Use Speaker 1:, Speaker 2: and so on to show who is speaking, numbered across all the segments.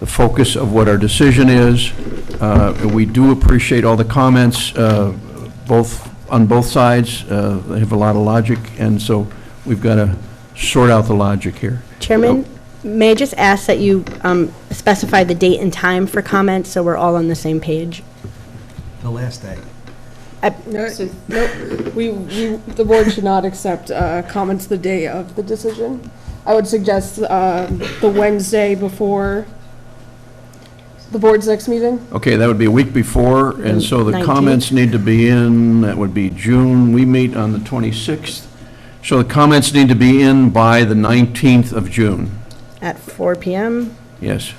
Speaker 1: the focus of what our decision is. Uh, We do appreciate all the comments, uh, both, on both sides. Uh, They have a lot of logic, and so we've got to sort out the logic here.
Speaker 2: Chairman, may I just ask that you um, specify the date and time for comments, so we're all on the same page?
Speaker 3: The last day.
Speaker 2: I-
Speaker 4: No, nope. We, we, the board should not accept uh, comments the day of the decision. I would suggest um, the Wednesday before the board's next meeting.
Speaker 1: Okay, that would be a week before, and so the
Speaker 2: Nineteenth.
Speaker 1: comments need to be in, that would be June, we meet on the 26th. So the comments need to be in by the 19th of June,
Speaker 2: At 4 PM?
Speaker 1: yes.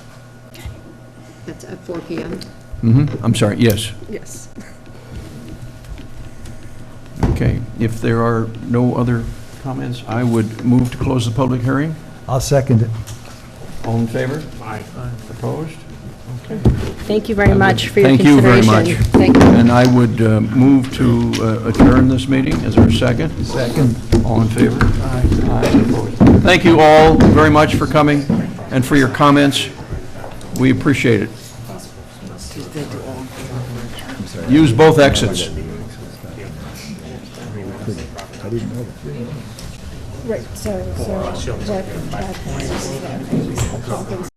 Speaker 5: That's at 4 PM.
Speaker 1: hmm I'm sorry, yes,
Speaker 4: Yes.
Speaker 1: okay. If there are no other comments, I would move to close the public hearing.
Speaker 3: I'll second it.
Speaker 1: All in favor? Aye. Opposed?
Speaker 2: Thank you very much for your
Speaker 1: Thank you very
Speaker 2: consideration.
Speaker 1: much.
Speaker 5: Thank you.
Speaker 1: And I would uh, move to uh, adjourn this meeting. Is there a second?
Speaker 3: Second.
Speaker 1: All in favor? Aye. Opposed? Thank you all very much for coming and for your comments. We appreciate it. Use both exits.
Speaker 4: Right, so, so Jack, Jack has